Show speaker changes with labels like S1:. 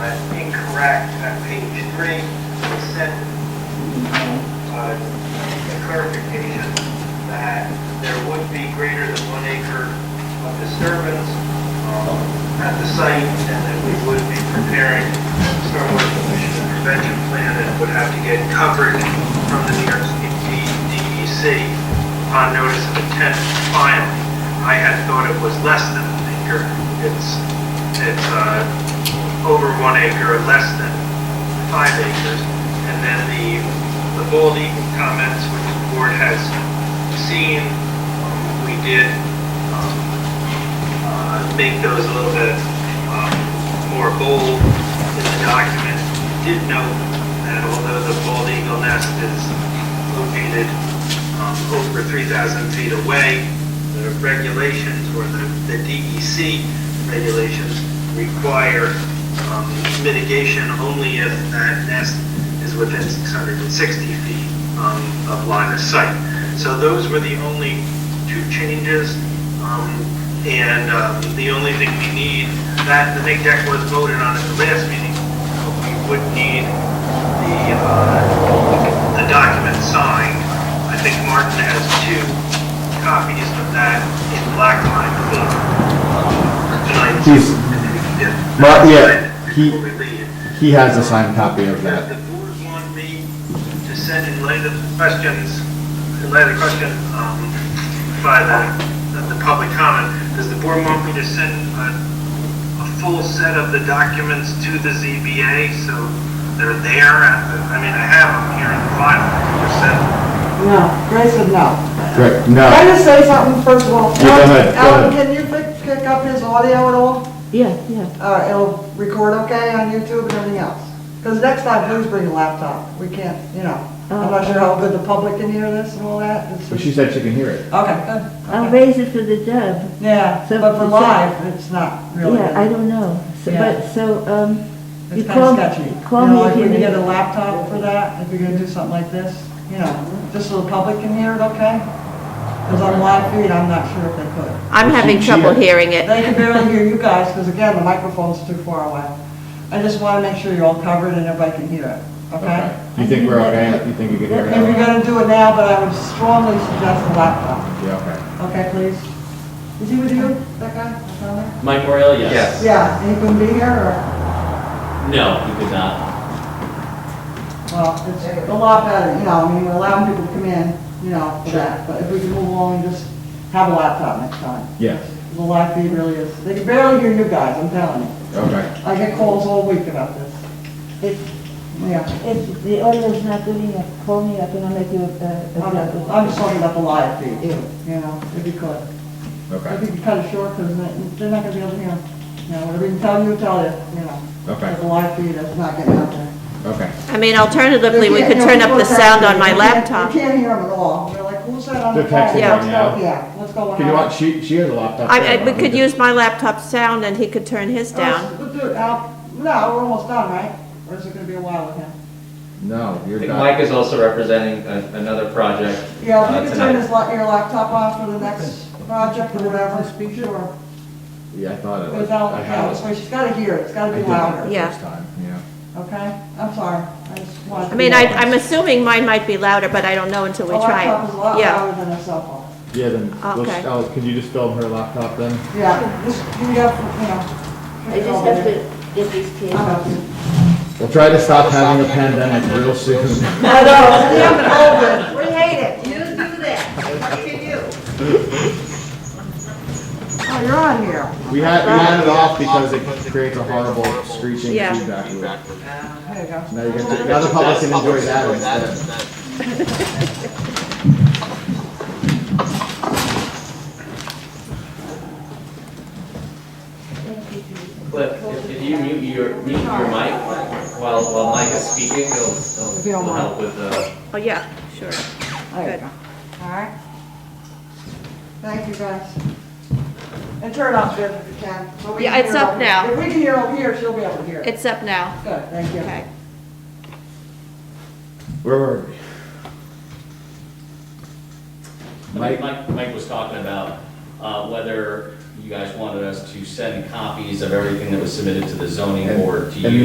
S1: that's incorrect on page three. It said, uh, the clarification that there would be greater than one acre of disturbance um, at the site, and that we would be preparing stormwater pollution and prevention plan that would have to get coverage from the New York State E DEC on notice of intent to file. I had thought it was less than an acre. It's, it's, uh, over one acre or less than five acres. And then the, the bald eagle comments, which the board has seen, um, we did, um, uh, make those a little bit um, more bold in the document. Did note that although the bald eagle nest is located um, over 3,000 feet away, the regulations or the the DEC regulations require um, mitigation only if that nest is within 660 feet um, of line of sight. So those were the only two changes. um, and um, the only thing we need, that, the big deck was voted on at the last meeting, but we would need the, uh, the document signed. I think Martin has two copies of that in black line. ink, um, tonight.
S2: He's-
S1: Yeah.
S2: Mar- yeah, he-
S1: Before we leave.
S2: He has a signed copy of
S1: Does
S2: that.
S1: the board want me to send in light of the questions, in light of the question, um, by the, the public comment, does the board want me to send a, a full set of the documents to the ZBA, so they're there? at the- I mean, I have them here in the file, just send.
S3: No, Ray said no.
S2: Right,
S3: Can
S2: no,
S3: I just say something, first of all?
S2: Yeah, go ahead, go
S3: Alan,
S2: ahead.
S3: can you pick, pick up his audio at all?
S4: Yeah, yeah.
S3: Uh, it'll record okay on YouTube and everything else. Because next time, please bring a laptop. We can't, you know, I'm not sure how good the public can hear this and all that. It's
S2: but
S3: just-
S2: she said she can hear it.
S3: Okay, good.
S4: I'll raise it for the dub.
S3: Yeah,
S4: So-
S3: but for
S4: so-
S3: live, it's not really.
S4: Yeah, I don't know. So,
S3: Yeah.
S4: but, so, um, you
S3: It's kind
S4: call,
S3: of sketchy.
S4: call
S3: You know,
S4: me
S3: like
S4: if you
S3: when you
S4: need.
S3: get a laptop for that, if you're gonna do something like this, you know, just so the public can hear it, okay? Because on live feed, I'm not sure if they could.
S5: I'm having
S2: She- she-
S5: trouble hearing it.
S3: They can barely hear you guys, because again, the microphone's too far away. I just want to make sure you're all covered and everybody can hear it, okay?
S2: You think we're okay? You think you can hear
S3: If you're
S2: it?
S3: gonna do it now, but I would strongly suggest a laptop,
S2: Yeah,
S3: okay, please? Is he with you, that guy? that's down there?
S6: Mike Morrell, yes.
S3: Yeah, and he couldn't be here, or,
S6: No, he could not.
S3: well, it's a lot better, you know, I mean, we're allowing people to come in, you know, for that, but if we can move along, just have a laptop next time.
S2: okay, yes,
S3: The live feed really is, they can barely hear you guys, I'm telling you.
S2: okay.
S3: I get calls all week about this,
S4: If,
S3: yeah.
S4: if the audio is not good enough, call me up and I'll make you a, a- a.
S3: I'm
S4: dub.
S3: I'm just talking about the live feed, too, you know, if you could. If you could cut it short, because they're not gonna be able to hear, 'em. you know, whatever you tell you, tell you, you know.
S2: Okay.
S3: But The live feed is not getting out there.
S2: Okay.
S5: I mean, alternatively,
S3: You
S5: we
S3: can't
S5: could
S3: hear
S5: turn up the
S3: what's
S5: sound on
S3: happening.
S5: my
S3: You can't-
S5: laptop.
S3: You can't hear them at all, they're like, who's that on the
S2: They're
S3: phone?
S2: texting
S5: right
S3: What's
S2: now.
S3: up? Yeah, what's going on?
S2: Can you watch, she, she has a laptop.
S5: I,
S2: there,
S5: I,
S2: why
S5: we
S2: don't
S5: could
S2: just-
S5: use my laptop sound and he could turn his
S3: Oh,
S5: down.
S3: we'll do it. Al- No, we're almost done, right? Or is it gonna be a while with him?
S2: Uh, No,
S6: I
S2: you're
S6: think
S2: done.
S6: Mike is also representing a- another project
S3: Yeah, if
S6: uh,
S3: you could turn
S6: tonight.
S3: this, la- your laptop off for the next project or whatever, speak to her.
S2: Yeah, I thought it was.
S3: Without,
S2: I had
S3: yeah,
S2: it.
S3: so she's gotta hear it, it's
S2: I
S3: gotta be
S2: did that
S3: louder.
S2: the
S5: Yeah.
S2: first time, yeah.
S3: Okay, I'm sorry, I just wanted.
S5: I mean, I, I'm assuming mine might be louder, but I don't know until we
S3: A
S5: try
S3: laptop is Oh, a lot
S5: it. Yeah,
S3: louder than a cell phone.
S2: Yeah, then, let's,
S5: Okay.
S2: oh, could you just film her laptop then?
S3: Yeah, this, you have, you know.
S4: I just have to get these kids.
S3: I know,
S2: We'll try to stop having a pandemic real soon.
S3: we have COVID, we hate it.
S4: You do that.
S3: Oh, you're on here.
S2: We had, we had it off because it creates a horrible screeching
S5: Yeah.
S2: feedback loop.
S3: There you go.
S2: Now you can, now the public can enjoy that instead.
S6: Cliff, if- if you mute your, mute your mic while, while Mike is speaking, it'll, it'll
S3: If you don't
S6: it'll
S3: mind.
S6: help with the.
S5: oh, yeah, sure.
S3: There you
S5: Good.
S3: go. All right. Thank you, guys. And turn it off, Jim, if you can. so we
S5: Yeah,
S3: can
S5: it's
S3: hear
S5: up
S3: over here.
S5: now.
S3: If we can hear over here, she'll be able to hear.
S5: It's up now.
S3: Good, thank you.
S5: Okay.
S2: Where were we? Mike?
S6: Mike, Mike, Mike was talking about uh, whether you guys wanted us to send copies of everything that was submitted to the zoning
S2: And-
S6: board to
S2: and
S6: you